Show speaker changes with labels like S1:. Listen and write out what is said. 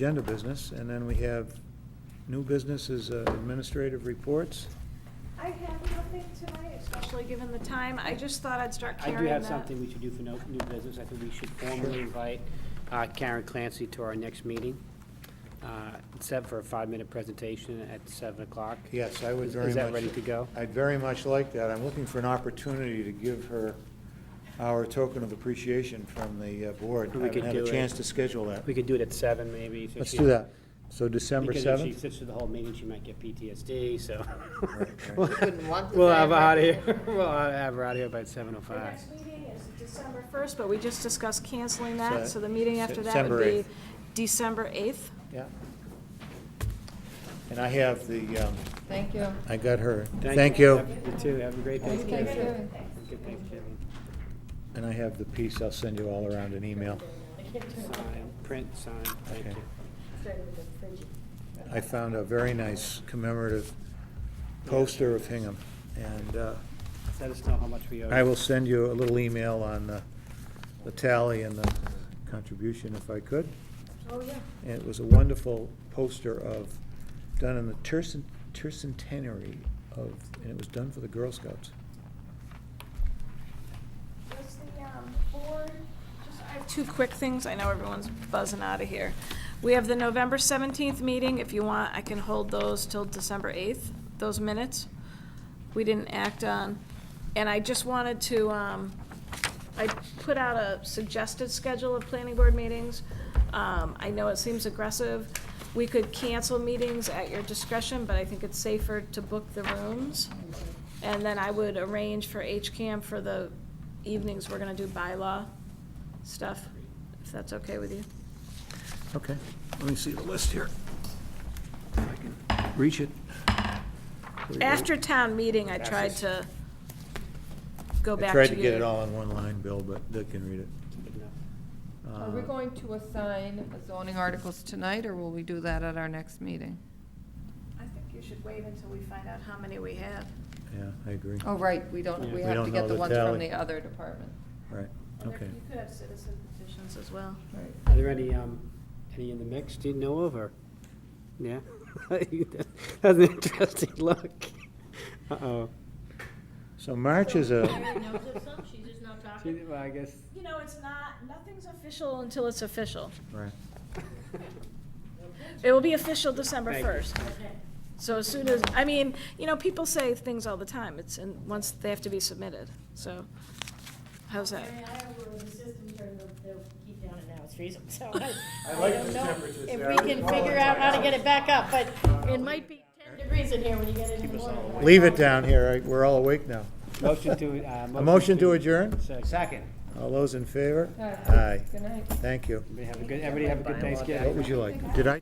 S1: agenda business, and then we have new businesses, uh, administrative reports.
S2: I have nothing tonight, especially given the time. I just thought I'd start
S3: I
S2: carrying
S3: do have
S2: that.
S3: something we should do for no- new business. I think we should formally invite uh, Karen Clancy to our next meeting, uh, set for a five-minute presentation at 7 o'clock.
S1: Yes, I would
S3: Is-
S1: very much.
S3: Is that ready to go?
S1: I'd very much like that. I'm looking for an opportunity to give her our token of appreciation from the uh, board.
S3: We
S1: I haven't
S3: could
S1: had a
S3: do it.
S1: chance to schedule that.
S3: We could do it at 7 maybe. so
S1: Let's
S3: she-
S1: do that. So December
S3: Because if she
S1: 7th?
S3: sits through the whole meeting, she might get PTSD, so.
S1: right.
S3: We'll-
S4: Wouldn't want the
S3: We'll have her out
S4: family.
S3: of here, we'll have her out of here by
S2: The
S3: 7:05.
S2: next meeting is December 1st, but we just discussed canceling
S1: So-
S2: that, so the meeting after that
S1: December
S2: would be
S1: 8th.
S2: December 8th.
S1: Yeah. And I have the, um,
S4: Thank you.
S1: I got her. Thank you.
S3: Have- You too, have a great
S4: Happy
S3: Thanksgiving.
S4: Thanksgiving.
S3: Have a Good Thanksgiving.
S1: And I have the piece. I'll send you all around an email.
S3: Sign, print, sign, thank
S1: Okay.
S3: you.
S1: I found a very nice commemorative poster of Hingham, and uh,
S3: Let us know how much we owe.
S1: I
S3: you.
S1: will send you a little email on the- the tally and the contribution if I could.
S2: Oh, yeah.
S1: And it was a wonderful poster of, done in the tercen- tercentenary of, and it was done for the Girl Scouts.
S2: Was the um, board, just, I have two quick things, I know everyone's buzzing out of here. We have the November 17th meeting, if you want, I can hold those till December 8th, those minutes we didn't act on. And I just wanted to, um, I put out a suggested schedule of planning board meetings. Um, I know it seems aggressive. We could cancel meetings at your discretion, but I think it's safer to book the rooms. And then I would arrange for HCAM for the evenings, we're gonna do bylaw stuff, if that's okay with you.
S1: Okay, let me see the list here. If I can reach it.
S2: After town meeting, I tried to go
S1: I
S2: back to you.
S1: tried to get it all in one line, Bill, but Dick can read it.
S3: Good enough.
S4: Are we
S1: Uh,
S4: going to assign zoning articles tonight, or will we do that at our next meeting?
S2: I think you should wait until we find out how many we have.
S1: Yeah, I agree.
S4: Oh, right, we
S3: Yeah.
S4: don't,
S3: We
S4: we have
S1: don't
S4: to
S1: know
S4: get the
S1: the
S4: ones from
S1: tally.
S4: the other department.
S1: Right,
S2: And there-
S1: okay.
S2: You could have citizen petitions as well.
S4: Right.
S3: Are there any, um, any in the mix, do you know of, or, yeah? That's an interesting look. Uh-oh.
S1: So March is a,
S5: Mary knows of some, she's just not
S3: See,
S5: talking.
S3: Well, I guess,
S2: You know, it's not, nothing's official until it's official.
S1: right,
S2: It will be official December
S3: Thank you.
S2: 1st. So as soon as, I mean, you know, people say things all the time, it's, and once they have to be submitted, so, how's that?
S5: Mary, I have a little system here, they'll, they'll keep down it now, it's freezing, so I, I don't know if we can figure out how to get it back up, but it might be ten degrees in here when you get in in the morning.
S1: leave it down here, I- we're all awake now.
S3: motion to, uh.
S1: A motion to adjourn?
S3: Second.
S1: All those in favor?
S4: All right.
S1: Aye,
S4: Good night.
S1: thank you.
S3: Everybody have a good, everybody have a good Thanksgiving.
S1: What would you like? Did I?